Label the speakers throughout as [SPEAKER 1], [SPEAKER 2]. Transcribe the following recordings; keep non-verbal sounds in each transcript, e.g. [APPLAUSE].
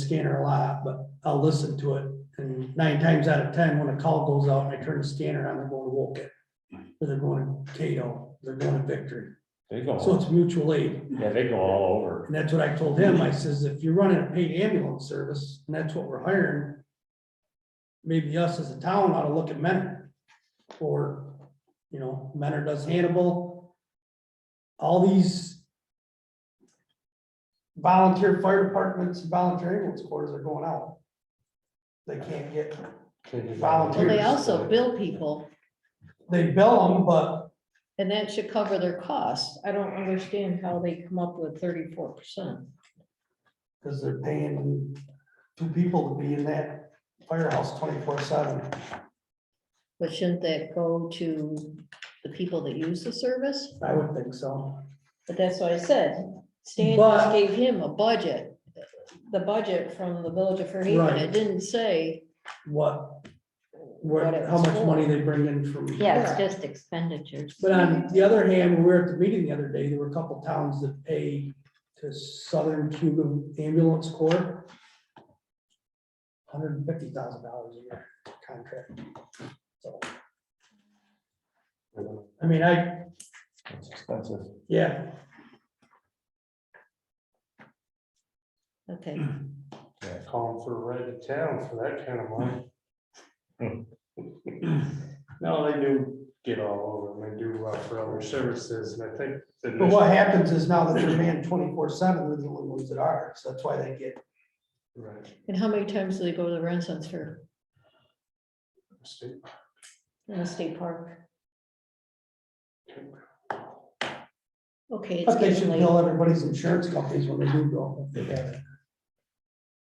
[SPEAKER 1] scanner a lot, but I'll listen to it. And nine times out of ten, when a call goes out and I turn the scanner on, they're going to Woken. Or they're going to Cato, they're going to Victory.
[SPEAKER 2] They go,
[SPEAKER 1] So
[SPEAKER 2] all-
[SPEAKER 1] it's mutual aid.
[SPEAKER 2] yeah, they go all over.
[SPEAKER 1] And that's what I told him. I says, if you're running a paid ambulance service and that's what we're hiring, maybe us as a town ought to look at Mentor. Or, you know, Mentor does Hannibal. All these volunteer fire departments, volunteer ambulance corps are going out. They can't get,
[SPEAKER 3] Well, they
[SPEAKER 1] Volunteers.
[SPEAKER 3] also bill people,
[SPEAKER 1] they bill them, but
[SPEAKER 3] and that should cover their costs. I don't understand how they come up with thirty-four percent.
[SPEAKER 1] because they're paying two people to be in that firehouse twenty-four seven.
[SPEAKER 3] But shouldn't that go to the people that use the service?
[SPEAKER 1] I would think so.
[SPEAKER 3] But that's what I said. Stan
[SPEAKER 1] But-
[SPEAKER 3] just gave him a budget, the budget from the village of Fairhaven.
[SPEAKER 1] Right.
[SPEAKER 3] It didn't say,
[SPEAKER 1] what,
[SPEAKER 3] What
[SPEAKER 1] what,
[SPEAKER 3] it
[SPEAKER 1] how
[SPEAKER 3] was
[SPEAKER 1] much
[SPEAKER 3] for.
[SPEAKER 1] money they bring in from.
[SPEAKER 4] Yeah, it's just expenditures.
[SPEAKER 1] But on the other hand, we were at the meeting the other day, there were a couple towns that pay to Southern Cuban Ambulance Corps. Hundred and fifty thousand dollars a year contract. So, I mean, I,
[SPEAKER 2] It's expensive.
[SPEAKER 1] yeah,
[SPEAKER 3] okay,
[SPEAKER 2] Yeah.
[SPEAKER 5] calling for a ride to town for that kind of money. No, they do get all over, them. they do uh, for other services, and I think. the
[SPEAKER 1] but what happens is now that they're manned twenty-four seven, we're the only ones that are, so that's why they get,
[SPEAKER 5] Right,
[SPEAKER 3] and how many times do they go to the Renaissance Fair
[SPEAKER 5] state-
[SPEAKER 3] in the state park? Okay, it's
[SPEAKER 1] but they
[SPEAKER 3] getting
[SPEAKER 1] should
[SPEAKER 3] late.
[SPEAKER 1] bill everybody's insurance companies when they do go. if they have it.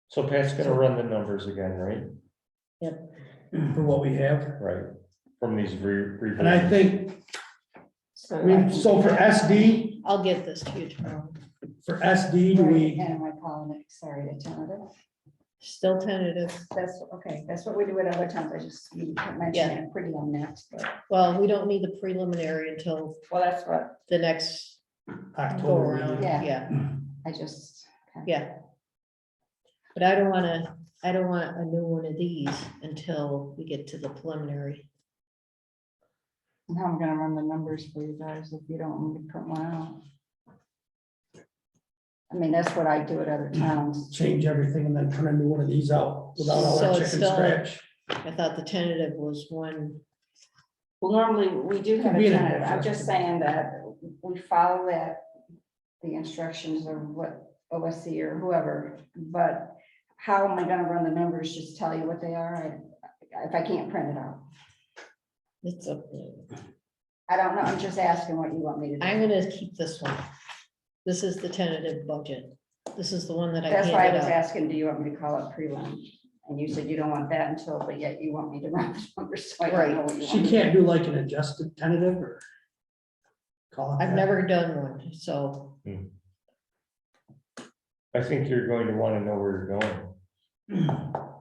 [SPEAKER 2] So Pat's gonna run the numbers again, right?
[SPEAKER 1] For what we have.
[SPEAKER 2] Right, from these re.
[SPEAKER 1] And I
[SPEAKER 2] revisions.
[SPEAKER 1] think, I
[SPEAKER 3] So
[SPEAKER 1] mean, so for SD,
[SPEAKER 3] I'll get this to you tomorrow.
[SPEAKER 1] for SD, do we,
[SPEAKER 4] am I calling it, sorry, to tentative?
[SPEAKER 3] Still tentative.
[SPEAKER 4] That's, okay, that's what we do at other times, I just, you
[SPEAKER 3] Yeah.
[SPEAKER 4] mentioned it pretty on next, but,
[SPEAKER 3] Well, we don't need the preliminary until
[SPEAKER 4] well, that's what,
[SPEAKER 3] the next go
[SPEAKER 1] October,
[SPEAKER 3] around.
[SPEAKER 1] meeting,
[SPEAKER 4] Yeah.
[SPEAKER 3] Yeah,
[SPEAKER 4] I just.
[SPEAKER 3] yeah. But I don't want to, I don't want a new one of these until we get to the preliminary.
[SPEAKER 4] Now I'm gonna run the numbers for you guys if you don't want me to print one out. I mean, that's what I do at other times.
[SPEAKER 1] change everything and then turn into one of these out without all
[SPEAKER 3] So
[SPEAKER 1] that
[SPEAKER 3] it's
[SPEAKER 1] chicken
[SPEAKER 3] still-
[SPEAKER 1] scratch.
[SPEAKER 3] I thought the tentative was one,
[SPEAKER 4] Well, normally, we do have
[SPEAKER 1] Be
[SPEAKER 4] a
[SPEAKER 1] in a
[SPEAKER 4] tentative, I'm just
[SPEAKER 1] different-
[SPEAKER 4] saying that we follow that, the instructions of what OSC or whoever, but how am I gonna run the numbers, just tell you what they are, I- if I can't print it out?
[SPEAKER 3] it's up.
[SPEAKER 4] I don't know, I'm just asking what you want me to
[SPEAKER 3] I'm
[SPEAKER 4] do.
[SPEAKER 3] going to keep this one. This is the tentative budget. This is the one that I
[SPEAKER 4] That's why I
[SPEAKER 3] handed
[SPEAKER 4] was
[SPEAKER 3] out.
[SPEAKER 4] asking, do you want me to call it prelim? And you said you don't want that until, but yet you want me to run the numbers, so I don't know what you want.
[SPEAKER 1] She
[SPEAKER 4] me to
[SPEAKER 1] can't do like an adjusted tentative or call it
[SPEAKER 3] I've
[SPEAKER 1] that.
[SPEAKER 3] never done one, so
[SPEAKER 2] I think you're going to wanna know where you're going.
[SPEAKER 1] I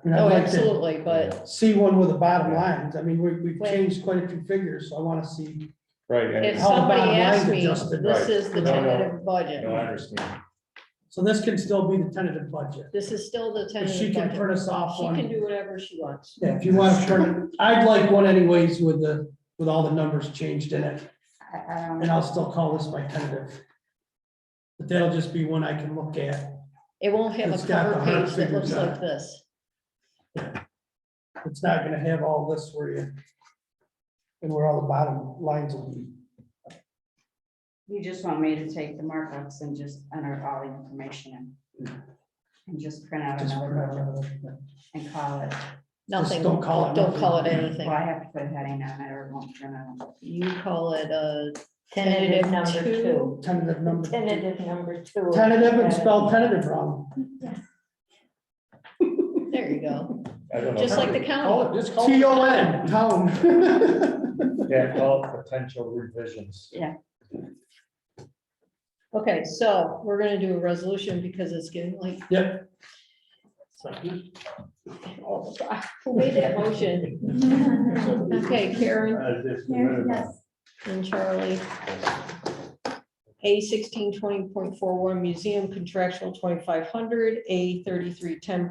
[SPEAKER 1] mean, I'd
[SPEAKER 3] oh,
[SPEAKER 1] like to
[SPEAKER 3] absolutely, but
[SPEAKER 1] See one with the bottom lines. I mean, we, we've
[SPEAKER 3] Wait.
[SPEAKER 1] changed quite a few figures, so I wanna see.
[SPEAKER 2] Right, and
[SPEAKER 3] If
[SPEAKER 1] How the
[SPEAKER 3] somebody
[SPEAKER 1] bottom line
[SPEAKER 3] asked me,
[SPEAKER 1] adjusted,
[SPEAKER 3] this
[SPEAKER 2] right.
[SPEAKER 3] is the
[SPEAKER 2] No, no.
[SPEAKER 3] tentative budget.
[SPEAKER 2] no, I understand.
[SPEAKER 1] So this can still be the tentative budget.
[SPEAKER 3] This is still the
[SPEAKER 1] If
[SPEAKER 3] tentative
[SPEAKER 1] She can
[SPEAKER 3] budget.
[SPEAKER 1] turn us off
[SPEAKER 3] She can
[SPEAKER 1] one.
[SPEAKER 3] do whatever she wants.
[SPEAKER 1] Yeah, if you wanna turn, I'd like one anyways with the, with all the numbers changed in it.
[SPEAKER 4] I- I don't
[SPEAKER 1] And I'll still call this my tentative. But that'll just be one I can look at.
[SPEAKER 3] It won't have
[SPEAKER 1] It's
[SPEAKER 3] a
[SPEAKER 1] got
[SPEAKER 3] cover
[SPEAKER 1] the hard
[SPEAKER 3] page that looks
[SPEAKER 1] figures on
[SPEAKER 3] like
[SPEAKER 1] it.
[SPEAKER 3] this.
[SPEAKER 1] It's not gonna have all this where you. And where all the bottom lines will be.
[SPEAKER 4] You just want me to take the markups and just enter all the information in? And just print out
[SPEAKER 1] Just
[SPEAKER 4] another
[SPEAKER 1] print out
[SPEAKER 4] budget
[SPEAKER 1] another-
[SPEAKER 4] and call it,
[SPEAKER 3] Nothing,
[SPEAKER 1] don't call it
[SPEAKER 3] don't
[SPEAKER 1] nothing.
[SPEAKER 3] call it
[SPEAKER 4] well,
[SPEAKER 3] anything.
[SPEAKER 4] I have to put a heading on it or it won't print out.
[SPEAKER 3] You call it a
[SPEAKER 6] Tentative number
[SPEAKER 3] two.
[SPEAKER 6] two.
[SPEAKER 1] Tentative number.
[SPEAKER 6] Tentative number two.
[SPEAKER 1] Tentative and spell tentative wrong.
[SPEAKER 3] There you go.
[SPEAKER 2] I don't know.
[SPEAKER 3] Just like the
[SPEAKER 2] Call
[SPEAKER 3] county.
[SPEAKER 2] it, just call
[SPEAKER 1] T
[SPEAKER 2] it,
[SPEAKER 1] O N, [LAUGHS] town.
[SPEAKER 2] yeah, call it potential revisions.
[SPEAKER 3] Okay, so we're gonna do a resolution because it's getting like,
[SPEAKER 1] Yep,
[SPEAKER 3] oh, God, who made that motion? [LAUGHS] Okay, Karen
[SPEAKER 5] Uh, just a minute.
[SPEAKER 3] and Charlie. A sixteen twenty point four one museum contractual twenty-five hundred, A thirty-three ten